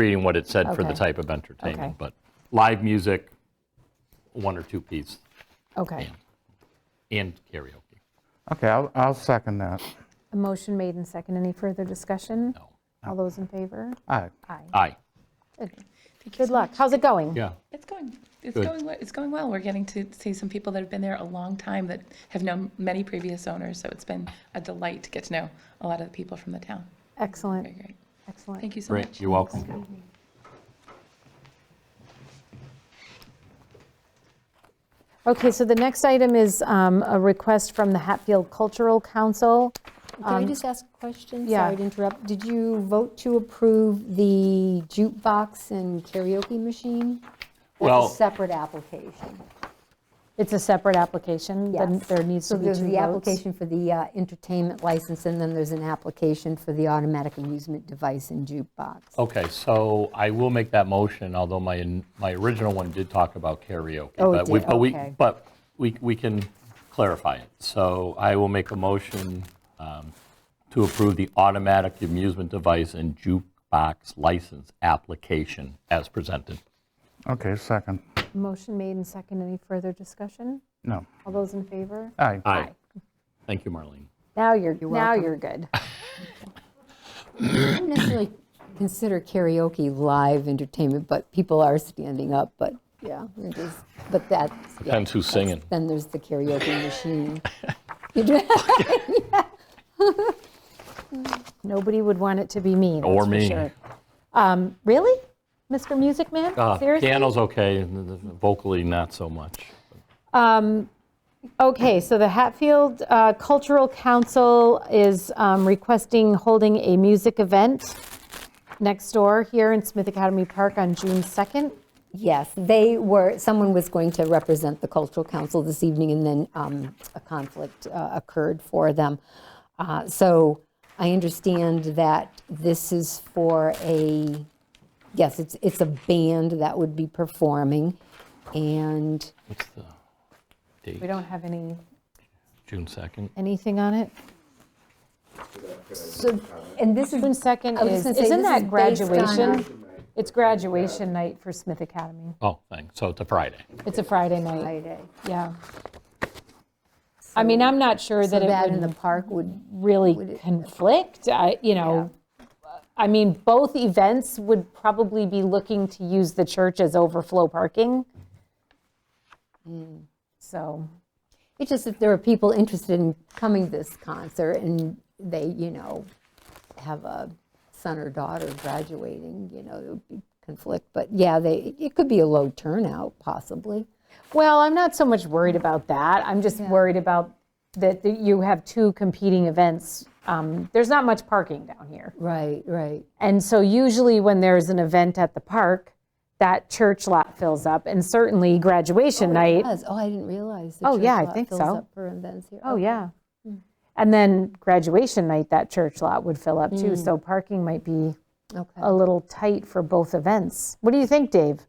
reading what it said for the Okay. type of entertainment, Okay. but live music, one or two piece, Okay. and karaoke. Okay, I'll, I'll second that. A motion made and second. Any further discussion? No. All those in favor? All right. Aye. Aye, Good. Good luck. How's it going? yeah. It's going, it's Good. going, we- it's going well. We're getting to see some people that have been there a long time that have known many previous owners, so it's been a delight to get to know a lot of the people from the town. Very Excellent, great. excellent. Thank you so much. Great, you're welcome. Okay, so the next item is um, a request from the Hatfield Cultural Council. Can I just ask a question? yeah. Sorry to interrupt. Did you vote to approve the jukebox and karaoke machine? Well- That's a separate application. It's a separate application, then Yes. there needs to be two votes. So there's the application for the uh, entertainment license, and then there's an application for the automatic amusement device and jukebox. Okay, so I will make that motion, although my, my original one did talk about karaoke. Oh, it but we- did, but we- okay. But we, we can clarify it. So I will make a motion um, to approve the automatic amusement device and jukebox license application as presented. Okay, second. Motion made and second. Any further discussion? No. All those in favor? All right. Aye. Thank you, Marlene. Now you're, now welcome. you're good. I wouldn't necessarily consider karaoke live entertainment, but people are standing up, but, yeah, it is, but that's. yeah, Depends who's that's- singing. Then there's the karaoke machine. Nobody would want it to be me, that's Or for me. sure. Um, Really? Mr. Music Man? Uh, Seriously? Piano's okay, and the- the- vocally not so much. Okay, so the Hatfield uh, Cultural Council is um, requesting holding a music event next door here in Smith Academy Park on June 2nd. Yes, they were, someone was going to represent the cultural council this evening, and then um, a conflict uh, occurred for them. Uh, So I understand that this is for a, yes, it's, it's a band that would be performing, and What's the We date? don't have any, June 2nd? anything on it. so, and this is June 2nd was is, gonna say, isn't that this is based on- graduation? It's graduation night for Smith Academy. Oh, thanks, so it's a Friday. It's a Friday night, Friday. yeah. I mean, I'm not sure So that that it in the would park would, really conflict, I, you know. I mean, both events would probably be looking to use the church as overflow parking. Mm. So, it's just if there are people interested in coming to this concert and they, you know, have a son or daughter graduating, you know, it would be conflict. But yeah, they, it could be a low turnout possibly. well, I'm not so much worried about that. I'm just worried about that that you have two competing events. Um, There's not much parking down here. Right, right. And so usually when there's an event at the park, that church lot fills up and certainly graduation night. Yes. Oh, I didn't realize. the Oh, church yeah, I lot think fills so. up for events here. Oh, yeah. And then graduation night, that church lot would fill up too. So parking might be Okay. a little tight for both events. What do you think, Dave?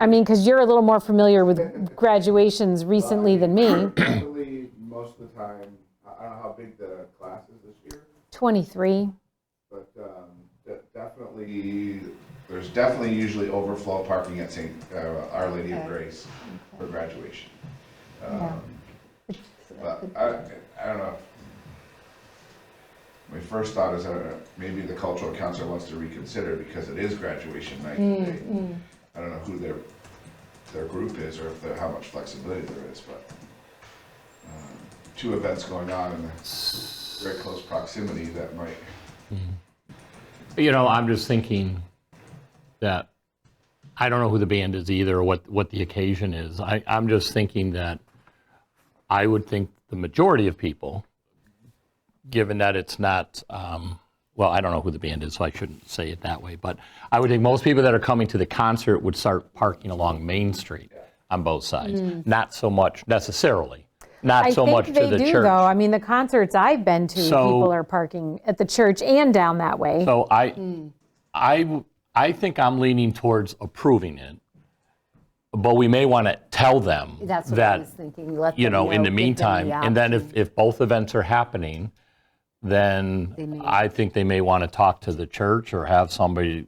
I mean, because you're a little more familiar with graduations recently than me. Luckily, most of the time, I I don't know how big the class is this year, 23, but um, de- definitely, there's definitely usually overflow parking at St., uh, Our Lady of Grace for graduation. Um, yeah. But I, I don't know. My first thought is, I don't know, maybe the cultural council wants to reconsider because it is graduation night. They- I don't know who their, their group is or if they're, how much flexibility there is, but um, two events going on in very close proximity that might. You know, I'm just thinking that, I don't know who the band is either, or what, what the occasion is. I, I'm just thinking that I would think the majority of people, given that it's not, um, well, I don't know who the band is, so I shouldn't say it that way, but I would think most people that are coming to the concert would start parking along Main Street on both sides. Not so much necessarily, not so much to the church. Mm. I think they do, though. I mean, the concerts I've been to, So- people are parking at the church and down that way. So I, Hmm. I, w- I think I'm leaning towards approving it, but we may want to tell them That's what I was that, thinking. Let you them know, in the give them meantime, and then if, if both events are happening, then I think they may want to talk to the church or have somebody